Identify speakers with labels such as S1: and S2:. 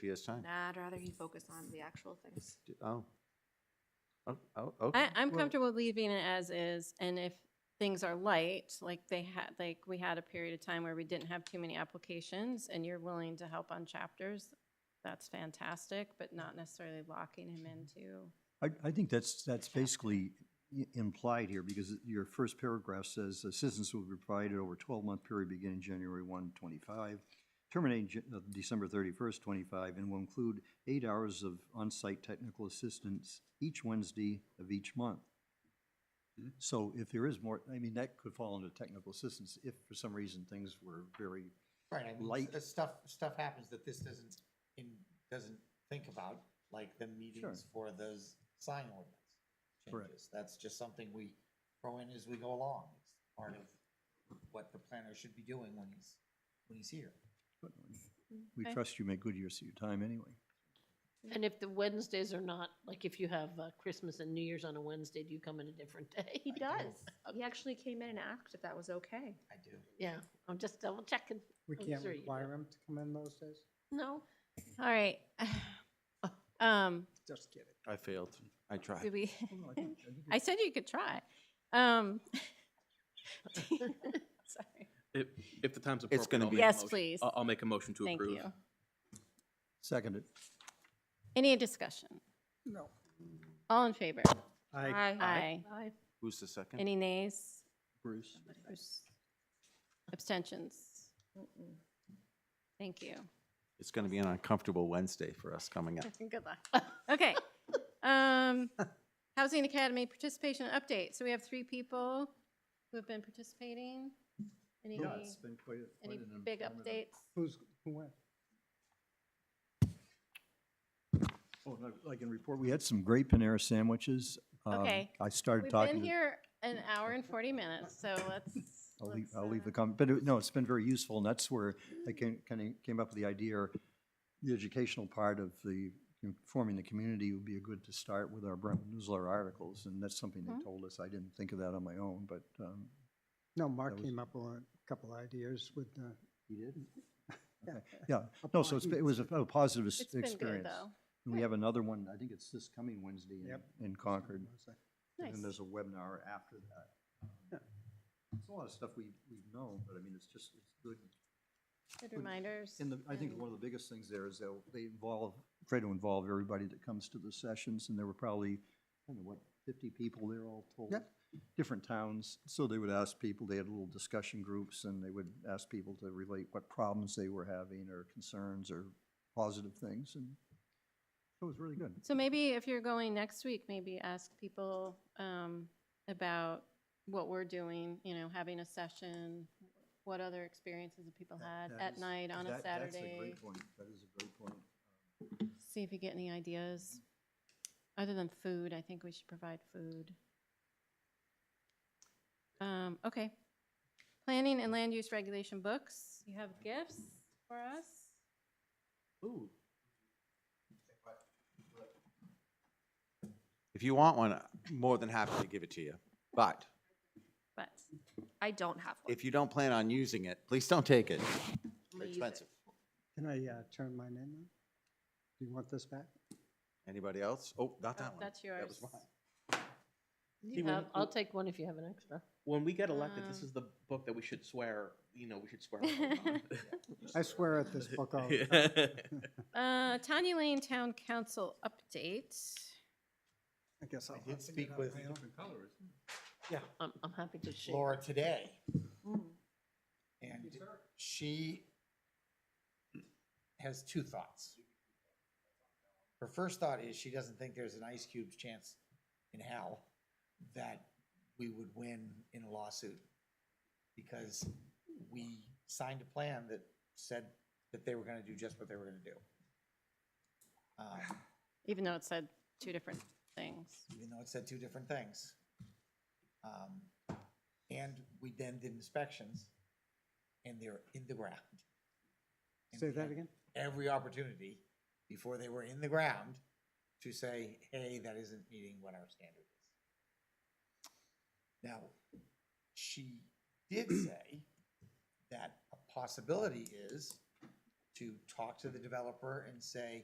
S1: He has time.
S2: Nah, I'd rather he focus on the actual things.
S1: D- Oh. Oh, oh, okay.
S3: I, I'm
S1: Well,
S3: comfortable leaving it as is, and if things are light, like they had, like we had a period of time where we didn't have too many applications, and you're willing to help on chapters, that's fantastic, but not necessarily locking him into.
S4: I, I think that's, that's basically i- implied here, because your first paragraph says, assistance will be provided over a twelve-month period beginning January 1, 25, terminating Jan- uh, December thirty-first, twenty-five, and will include eight hours of on-site technical assistance each Wednesday of each month.
S1: Hmm?
S4: So if there is more, I mean, that could fall under technical assistance, if for some reason things were very,
S5: Right, I mean,
S4: light-
S5: s- uh, stuff, stuff happens that this doesn't, in, doesn't think about, like the meetings for those sign ordinance
S4: Correct.
S5: changes. That's just something we throw in as we go along. It's part of what the planner should be doing when he's, when he's here.
S4: we
S3: Okay.
S4: trust you make good use of your time anyway.
S6: And if the Wednesdays are not, like if you have uh, Christmas and New Year's on a Wednesday, do you come in a different day?
S2: He does. Uh, He actually came in and asked if that was okay.
S5: I do.
S6: Yeah, I'm just double checking.
S7: We
S6: I'm
S7: can't
S6: sure you
S7: require him to come in those days?
S6: No,
S3: All right. Um,
S7: Just kidding.
S1: I failed. I tried.
S3: did we,
S4: Well, Oh, I think- I think
S3: I said you could try. Um, sorry.
S8: If, if the time's appropriate.
S1: It's gonna
S8: I'll
S1: be-
S8: make a
S3: Yes,
S8: motion-
S3: please.
S8: I'll, I'll make a motion to
S3: Thank
S8: approve.
S3: you.
S4: Seconded.
S3: Any discussion?
S7: No.
S3: All in favor?
S7: I,
S3: Aye.
S1: Who's the second?
S3: Any nays?
S1: Bruce.
S3: Abstentions? Thank you.
S1: It's going to be an uncomfortable Wednesday for us coming up.
S3: Good luck. Okay. Um, Housing Academy participation update. So we have three people who have been participating. Any,
S4: Yeah, it's been quite, a-
S3: any
S4: quite an
S3: big
S4: informative-
S3: updates?
S7: who's, who went?
S4: Oh, no, I can report, we had some great Panera sandwiches. Um,
S3: Okay.
S4: I started
S3: We've
S4: talking.
S3: been
S4: to-
S3: here an hour and 40 minutes, so let's.
S4: I'll leave,
S3: let's,
S4: I'll leave the
S3: uh,
S4: comment, but it- no, it's been very useful, and that's where I came, kind of came up with the idea, or the educational part of the, you know, forming the community would be a good to start with our Brentwood newsletter articles, and that's something
S3: Mhm.
S4: they told us, I didn't think of that on my own, but, um,
S7: No,
S4: That
S7: Mark
S4: was-
S7: came up with a couple ideas with the.
S4: You did?
S7: Yeah.
S4: yeah, no, so it's been- it was a a positive s-
S3: It's
S4: experience.
S3: been good, though.
S4: And we have another one, I think it's this coming Wednesday in-
S7: Yep.
S4: in Concord. And then
S3: Nice.
S4: there's a webinar after that. It's a lot of stuff we, we've known, but I mean, it's just, it's good.
S3: Good reminders.
S4: And the, I think one of the biggest things there is that they involve, try to involve everybody that comes to the sessions, and there were probably, I don't know, what, fifty people there all told?
S7: Yep.
S4: Different towns, so they would ask people, they had little discussion groups, and they would ask people to relate what problems they were having, or concerns, or positive things, and it was really good.
S3: So maybe if you're going next week, maybe ask people um, about what we're doing, you know, having a session, what other experiences have people
S4: That-
S3: had
S4: that
S3: at
S4: is-
S3: night on a
S4: that- That's a
S3: Saturday?
S4: great point, that is a great point.
S3: See if you get any ideas. Other than food, I think we should provide food. Um, Okay. Planning and land use regulation books. You have gifts for us?
S1: If you want one, I'm more than happy to give it to you. But
S3: But
S2: I don't have one.
S1: if you don't plan on using it, please don't take it.
S2: I'm
S1: They're
S2: gonna use it.
S1: expensive.
S7: Can I uh, turn mine in now? Do you want this back?
S1: Anybody else? Oh, not
S3: oh,
S1: that one.
S3: that's
S1: That
S3: yours.
S1: was mine.
S8: See,
S6: you
S8: when-
S6: have, I'll take one if you have an extra.
S8: When we get elected, this
S3: Um,
S8: is the book that we should swear, you know, we should swear. the whole time.
S7: I swear at this book all the time.
S8: Yeah.
S3: Uh, Tanya Lane Town Council update.
S7: I guess I'll.
S5: I
S7: have
S5: did
S7: to get
S5: speak
S7: out
S5: with
S7: my own.
S6: I'm, I'm happy to share.
S5: Laura today,
S2: Mm.
S5: and she has two thoughts. Her first thought is she doesn't think there's an ice cube's chance in hell that we would win in a lawsuit because we signed a plan that said that they were gonna do just what they were gonna do. Um,
S3: Even though it said two different things.
S5: even though it said two different things. Um, And we then did inspections, and they're in the ground. And
S7: Say
S5: we
S7: that
S5: had
S7: again?
S5: Every opportunity, before they were in the ground, to say, hey, that isn't meeting what our standard is. Now, she did say that a possibility is to talk to the developer and say,